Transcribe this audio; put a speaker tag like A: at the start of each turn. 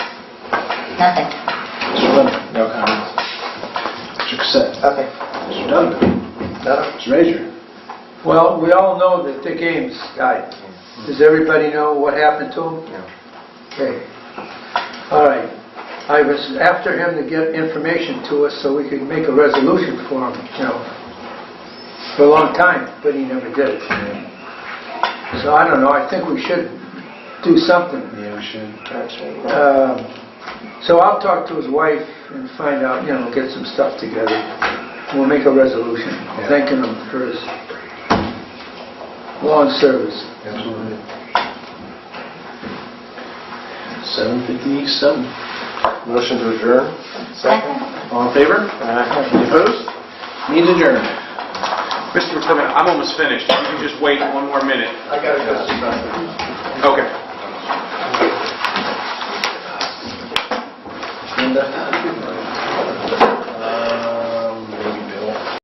A: Nothing.
B: Mr. Lemon?
C: No comments.
B: Mr. Cassett?
C: Nothing.
B: Mr. Donovan?
C: No.
B: Mr. Rager?
D: Well, we all know that the game's died. Does everybody know what happened to him?
C: No.
D: Okay. All right. I was after him to get information to us so we could make a resolution for him, you know, for a long time, but he never did it. So I don't know, I think we should do something.
B: Yeah, we should.
D: Um, So I'll talk to his wife and find out, you know, get some stuff together. We'll make a resolution, thanking him for his long service.
B: Absolutely. 7:57.
C: Motion to adjourn?
B: All in favor? Any opposed? Means adjourned.
E: Mr. McCormick, I'm almost finished. You can just wait one more minute.
C: I got a question about that.
E: Okay.
B: Linda?